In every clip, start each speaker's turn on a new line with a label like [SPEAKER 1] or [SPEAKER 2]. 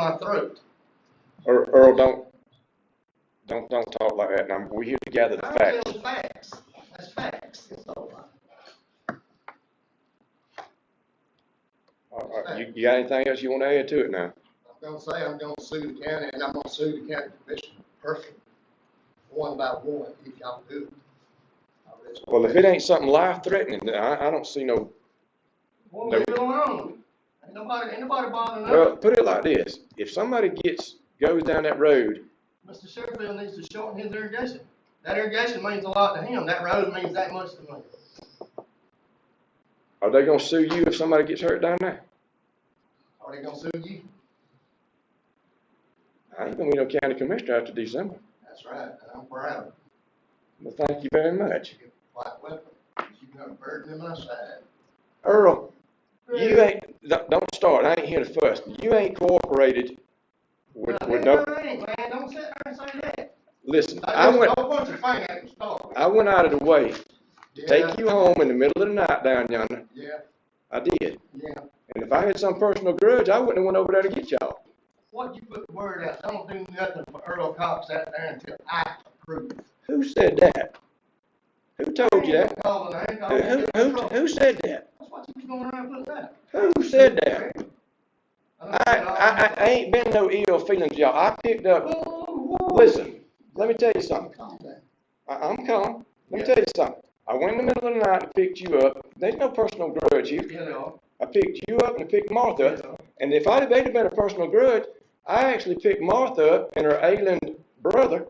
[SPEAKER 1] my throat.
[SPEAKER 2] Earl, Earl, don't, don't, don't talk like that. Now, we're here to gather the
[SPEAKER 1] I
[SPEAKER 2] facts.
[SPEAKER 1] tell facts. That's facts. That's all right.
[SPEAKER 2] All right, Uh, You, you got anything else you wanna add to it now?
[SPEAKER 1] I'm gonna say I'm gonna sue the county and I'm gonna sue the county commission personally, one by one, if y'all do it. I really-
[SPEAKER 2] Well, if it ain't something life threatening, then I, I don't see no,
[SPEAKER 1] We'll leave it alone. Ain't nobody, ain't nobody bothering
[SPEAKER 2] well,
[SPEAKER 1] us.
[SPEAKER 2] put it like this. If somebody gets, goes down that road,
[SPEAKER 1] Mr. Sherfield needs to shorten his irrigation. That irrigation means a lot to him. That road means that much to me.
[SPEAKER 2] are they gonna sue you if somebody gets hurt down there?
[SPEAKER 1] Are they gonna sue you?
[SPEAKER 2] I ain't gonna be no county commissioner after December.
[SPEAKER 1] That's right, and I'm proud of it.
[SPEAKER 2] Well, thank you very much.
[SPEAKER 1] Quite well, you've got a burden in my side.
[SPEAKER 2] Earl, you ain't, don't, don't start. I ain't here to fuss. You ain't cooperated with,
[SPEAKER 1] Now,
[SPEAKER 2] with
[SPEAKER 1] no,
[SPEAKER 2] no,
[SPEAKER 1] no, no, ain't, man, don't sit there and say that.
[SPEAKER 2] listen, I
[SPEAKER 1] I
[SPEAKER 2] went,
[SPEAKER 1] just don't want your finger at the start.
[SPEAKER 2] I went out of the way to
[SPEAKER 1] Yeah,
[SPEAKER 2] take you home in the middle of the night down yonder.
[SPEAKER 1] Yeah,
[SPEAKER 2] I did.
[SPEAKER 1] yeah.
[SPEAKER 2] And if I had some personal grudge, I wouldn't have went over there to get y'all.
[SPEAKER 1] What you put the word out, don't do nothing for Earl Cox out there until I approve.
[SPEAKER 2] Who said that? Who told you that?
[SPEAKER 1] Calling, I ain't
[SPEAKER 2] Oh, Who,
[SPEAKER 1] calling.
[SPEAKER 2] who,
[SPEAKER 1] you.
[SPEAKER 2] who, who said that?
[SPEAKER 1] That's what you was going around putting out.
[SPEAKER 2] Who said that?
[SPEAKER 1] I
[SPEAKER 2] I,
[SPEAKER 1] don't know.
[SPEAKER 2] I, I ain't been no ill feelings, y'all. I picked up,
[SPEAKER 1] Whoa, whoa, whoa.
[SPEAKER 2] listen, let me tell you something.
[SPEAKER 1] Calm down.
[SPEAKER 2] I, I'm calm. Let me tell you something. I went in the middle of the night and picked you up. There's no personal grudge here.
[SPEAKER 1] You know,
[SPEAKER 2] I picked you up and I picked
[SPEAKER 1] you
[SPEAKER 2] Martha.
[SPEAKER 1] know.
[SPEAKER 2] And if I'd have they'd have been a personal grudge, I actually picked Martha up and her ailing brother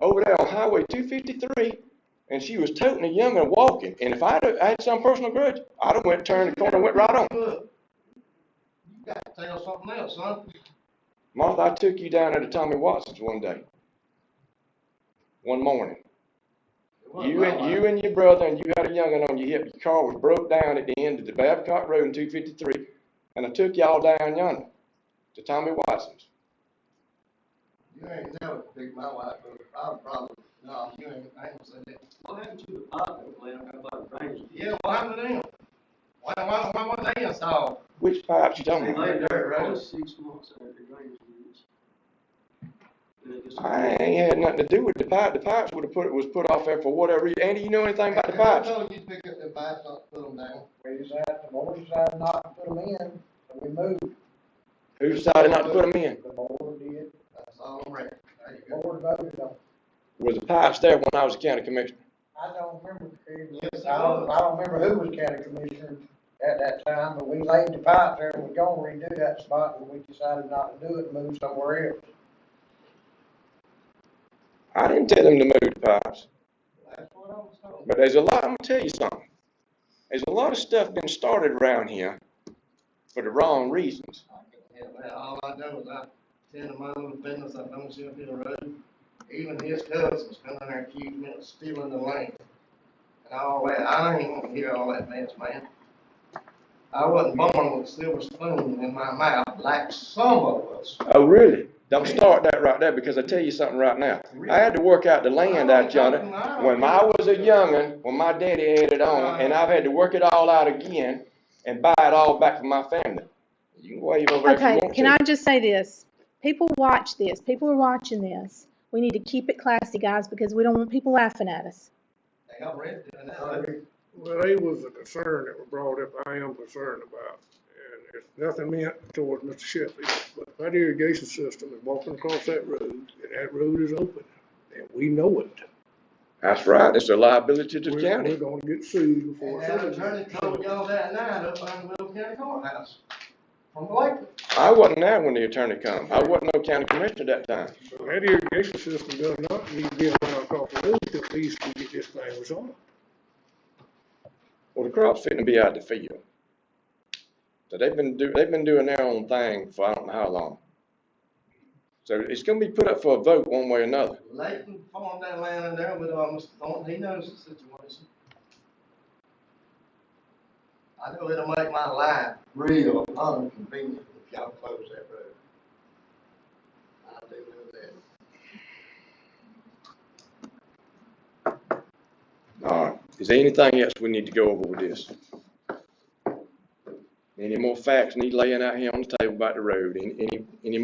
[SPEAKER 2] over there on Highway 253, and she was toting a young and walking. And if I'd have, I had some personal grudge, I'd have went turned the corner and went right on.
[SPEAKER 1] Look, you got to tell something else, son.
[SPEAKER 2] Martha, I took you down there to Tommy Watson's one day, one morning. You and you and your brother and you had a young'un on your hip. Your car was broke down at the end of the Babcock Road in 253, and I took y'all down yonder to Tommy Watson's.
[SPEAKER 1] You ain't never picked my wife, but I'm probably, no, you ain't, I ain't gonna say that.
[SPEAKER 3] What happened to the parking plan, how about the drainage?
[SPEAKER 1] Yeah, why am I down? Why, why, why was they installed?
[SPEAKER 2] Which pipes you talking
[SPEAKER 3] They
[SPEAKER 2] about?
[SPEAKER 3] laid there
[SPEAKER 1] Right.
[SPEAKER 3] for six months after drainage was. And it just-
[SPEAKER 2] I ain't had nothing to do with the pipe. The pipes would have put, was put off there for whatever reason. Andy, you know anything about the
[SPEAKER 1] I
[SPEAKER 2] pipes?
[SPEAKER 1] told you to pick up the pipes, not put them down.
[SPEAKER 4] We decided, the board decided not to put them in, so we moved,
[SPEAKER 2] Who decided not to put them in?
[SPEAKER 4] the board did,
[SPEAKER 1] That's all I'm ready. There you
[SPEAKER 4] the
[SPEAKER 1] go.
[SPEAKER 4] board voted on. it.
[SPEAKER 2] Was the pipes there when I was a county commissioner?
[SPEAKER 4] I don't remember, Terry.
[SPEAKER 1] Yes,
[SPEAKER 4] I don't, I don't remember who was county commissioner at that time, but we laid the pipe there, and we're gonna redo that spot, and we decided not to do it, move somewhere else.
[SPEAKER 2] I didn't tell them to move the pipes.
[SPEAKER 1] That's what I was told.
[SPEAKER 2] But there's a lot, I'm gonna tell you something. There's a lot of stuff been started around here for the wrong reasons.
[SPEAKER 1] Yeah, man, all I do is I tend to my own business, I don't see up here road. Even his cousins come in there accusing me of stealing the land. And all that, I ain't want to hear all that mess, man. I wasn't born with a silver spoon in my mouth like some of us.
[SPEAKER 2] Oh, really? Don't start that right there because I tell you something right now. I had to work out the land out yonder. When I was a young'un, when my daddy had it on, and I've had to work it all out again and buy it all back for my family. You can wave over there if you
[SPEAKER 5] Okay,
[SPEAKER 2] want
[SPEAKER 5] can I
[SPEAKER 2] to.
[SPEAKER 5] just say this? People watch this, people are watching this. We need to keep it classy, guys, because we don't want people laughing at us.
[SPEAKER 1] They got red doing that.
[SPEAKER 6] Well, they was a concern that was brought up, I am concerned about, and it's nothing meant towards Mr. Sheffield, but that irrigation system is walking across that road, and that road is open, and we know it.
[SPEAKER 2] That's right, it's a liability to the
[SPEAKER 6] We're- We're
[SPEAKER 2] county.
[SPEAKER 6] gonna get sued
[SPEAKER 1] And
[SPEAKER 6] before. it's
[SPEAKER 1] that
[SPEAKER 6] over.
[SPEAKER 1] attorney told y'all that night up on Will County Courthouse from Blakely.
[SPEAKER 2] I wasn't there when the attorney come. I wasn't no county commissioner that time.
[SPEAKER 6] So That irrigation system does not need to be allowed across the road till at least we get this thing resolved.
[SPEAKER 2] Well, the crop's fitting to be out of the field. So they've been do, they've been doing their own thing for I don't know how long. So it's gonna be put up for a vote one way or another.
[SPEAKER 1] Leighton farmed that land in there with, um, Mr. Thornton, he knows the situation. I know it'll make my life real inconvenient if y'all close that road. I do know that.
[SPEAKER 2] All right, is there anything else we need to go over with this? Any more facts need laying out here on the table about the road, any, any, any more